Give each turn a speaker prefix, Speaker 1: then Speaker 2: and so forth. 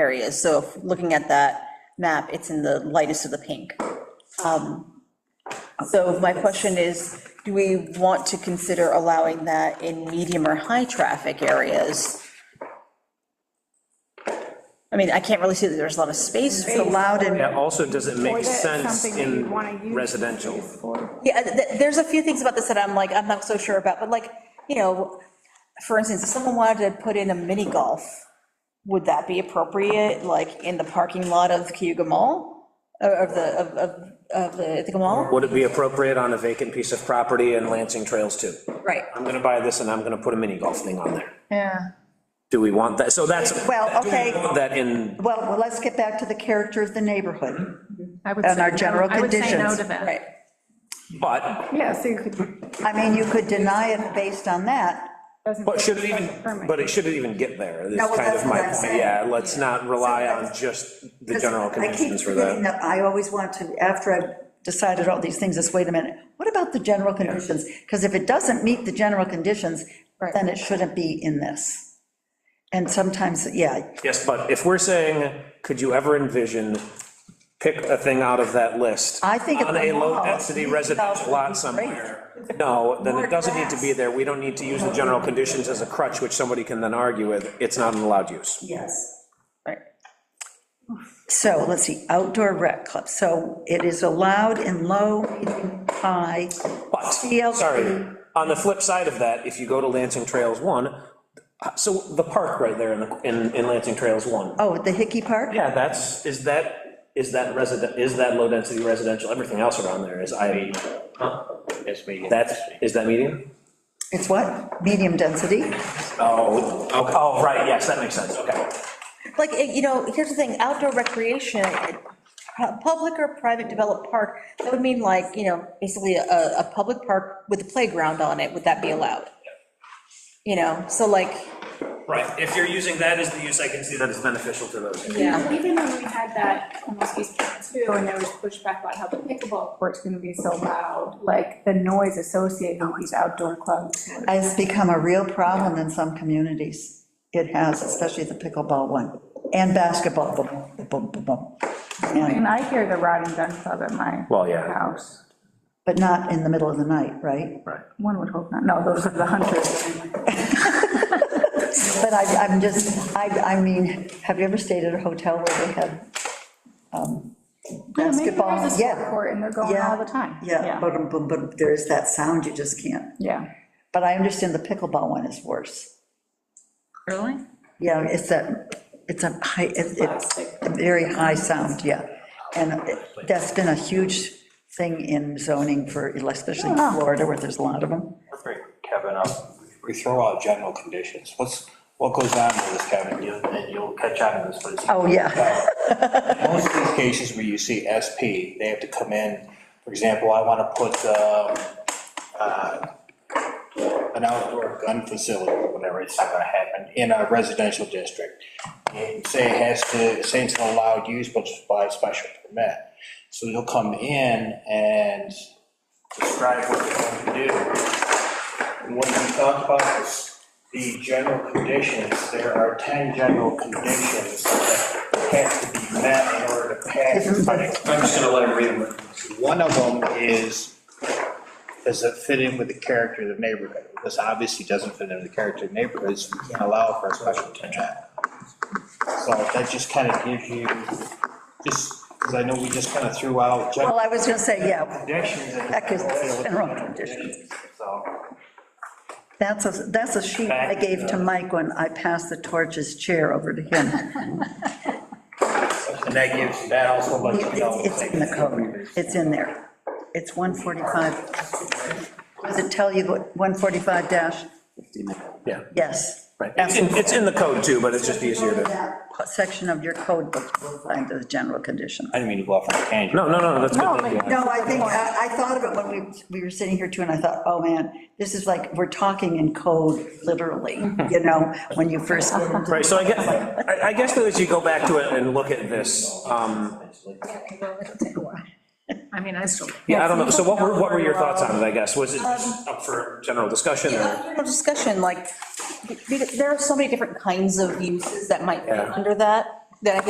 Speaker 1: areas. So if looking at that map, it's in the lightest of the pink. Um, So my question is, do we want to consider allowing that in medium or high-traffic areas? I mean, I can't really see that there's a lot of space
Speaker 2: It's allowed in.
Speaker 3: That also doesn't
Speaker 2: Or
Speaker 3: make
Speaker 2: that's
Speaker 3: sense
Speaker 2: something that
Speaker 3: in
Speaker 2: you'd wanna use
Speaker 3: residential.
Speaker 2: this for.
Speaker 1: Yeah, th- th- there's a few things about this that I'm like, I'm not so sure about, but like, you know, for instance, if someone wanted to put in a mini golf, would that be appropriate, like, in the parking lot of Cayuga Mall? Or Of the, of, of, of the Ithaca Mall?
Speaker 3: Would it be appropriate on a vacant piece of property in Lansing Trails too?
Speaker 1: Right.
Speaker 3: I'm gonna buy this and I'm gonna put a mini golf thing on there.
Speaker 2: Yeah.
Speaker 3: Do we want that? So that's.
Speaker 4: Well,
Speaker 3: do we
Speaker 4: okay.
Speaker 3: want That in,
Speaker 4: Well, well, let's get back to the character of the neighborhood.
Speaker 5: I would
Speaker 4: And
Speaker 5: say
Speaker 4: our
Speaker 5: no-
Speaker 4: general
Speaker 5: I would
Speaker 4: conditions.
Speaker 5: say no to that.
Speaker 1: Right.
Speaker 3: but,
Speaker 2: Yeah, so you could,
Speaker 4: I mean, you could deny it based on that.
Speaker 2: doesn't.
Speaker 3: but should it even,
Speaker 2: Permit.
Speaker 3: but it shouldn't even get there, is
Speaker 4: No, well,
Speaker 3: kind
Speaker 4: that's
Speaker 3: of my
Speaker 4: what I'm
Speaker 3: point.
Speaker 4: saying.
Speaker 3: Yeah, let's not rely on just the general conditions for that.
Speaker 4: I always want to, after I've decided all these things, is wait a minute, what about the general conditions? Because if it doesn't meet the general conditions, then it shouldn't be in this. And sometimes, yeah,
Speaker 3: Yes, but if we're saying, could you ever envision, pick a thing out of that list?
Speaker 4: I think
Speaker 3: On
Speaker 4: if
Speaker 3: a
Speaker 4: the mall-
Speaker 3: low-density residential lot somewhere, no, then it doesn't need to be there, we don't need to use the general conditions as a crutch, which somebody can then argue with, it's not an allowed use.
Speaker 4: yes.
Speaker 1: Right.
Speaker 4: So, let's see, outdoor rec club, so it is allowed in low, medium, high,
Speaker 3: But,
Speaker 4: CLT.
Speaker 3: sorry, on the flip side of that, if you go to Lansing Trails 1, uh, so the park right there in the- in, in Lansing Trails 1,
Speaker 4: oh, the Hickey Park?
Speaker 3: yeah, that's, is that, is that resident, is that low-density residential, everything else around there is I,
Speaker 6: It's medium.
Speaker 3: that's, is that medium?
Speaker 4: It's what? Medium density?
Speaker 3: Oh, okay. oh, right, yes, that makes sense, okay.
Speaker 1: Like, eh, you know, here's the thing, outdoor recreation, eh, pu- public or private developed park, that would mean like, you know, basically a, a public park with a playground on it, would that be allowed? You know, so like,
Speaker 3: Right, if you're using that as the use, I can see that it's beneficial to those.
Speaker 1: yeah,
Speaker 7: Even when we had that almost East Camp too, and there was pushback about how the pickleball court's gonna be so loud, like the noise associated with these outdoor clubs.
Speaker 4: It's become a real problem in some communities. It has, especially the pickleball one, and basketball. boom, boom, boom, boom, and-
Speaker 7: And I hear the rod and gun club at my
Speaker 3: Well, yeah.
Speaker 7: house.
Speaker 4: But not in the middle of the night, right?
Speaker 7: One would hope not. No, those are the hunters.
Speaker 4: But I, I'm just, I, I mean, have you ever stayed at a hotel where they had um, basketball?
Speaker 7: There's a sport court and they're going
Speaker 4: Yeah,
Speaker 7: all the time.
Speaker 4: Yeah, boom, boom, boom, there is that sound, you just can't.
Speaker 7: Yeah.
Speaker 4: But I understand the pickleball one is worse.
Speaker 5: Really?
Speaker 4: Yeah, it's that, it's a high, it- it's a very high sound, yeah. And it- that's been a huge thing in zoning for, especially in Florida, where there's a lot of them.
Speaker 6: Perfect, Kevin, uh, we throw out general conditions, what's, what goes on with this, Kevin, you, and you'll catch on to this, but it's.
Speaker 4: Oh, yeah.
Speaker 6: Uh, Most of these cases where you see SP, they have to come in, for example, I wanna put, um, uh, an outdoor gun facility, or whatever, it's not gonna happen, in a residential district. And say it has to, say it's an allowed use, but it's by special permit. So you'll come in and describe what you're going to do. And when we talk about this, the general conditions, there are 10 general conditions that have to be met in order to pass. I'm just gonna let him read them. One of them is, does it fit in with the character of the neighborhood? This obviously doesn't fit in with the character of the neighborhood, so we can't allow for a special permit. So that just kind of gives you, just, because I know we just kind of threw out
Speaker 4: Well,
Speaker 6: general
Speaker 4: I was gonna say, yeah,
Speaker 6: conditions. and-
Speaker 4: that is general conditions.
Speaker 6: So.
Speaker 4: that's a, that's a sheet I gave to Mike when I passed the torch as chair over to him.
Speaker 6: And that gives, that also lets you know.
Speaker 4: It's in the code, it's in there. It's 145. Does it tell you what, 145 dash,
Speaker 3: Yeah,
Speaker 4: yes.
Speaker 3: right, it's in, it's in the code too, but it's just easier to,
Speaker 4: That Section of your code book will find the general condition.
Speaker 6: I didn't mean to go off on a tangent.
Speaker 3: no, no, no, that's
Speaker 7: No,
Speaker 3: good.
Speaker 7: but-
Speaker 4: No, I think, I I thought of it when we, we were sitting here too, and I thought, oh man, this is like, we're talking in code, literally, you know, when you first get into
Speaker 3: Right, so I guess, I, I guess that as you go back to it and look at this, um,
Speaker 5: I mean, I still.
Speaker 3: yeah, I don't know, so what were, what were your thoughts on it, I guess, was it just up for general discussion or?
Speaker 1: general discussion, like, be- there are so many different kinds of uses that might be
Speaker 3: Yeah.
Speaker 1: under that. then I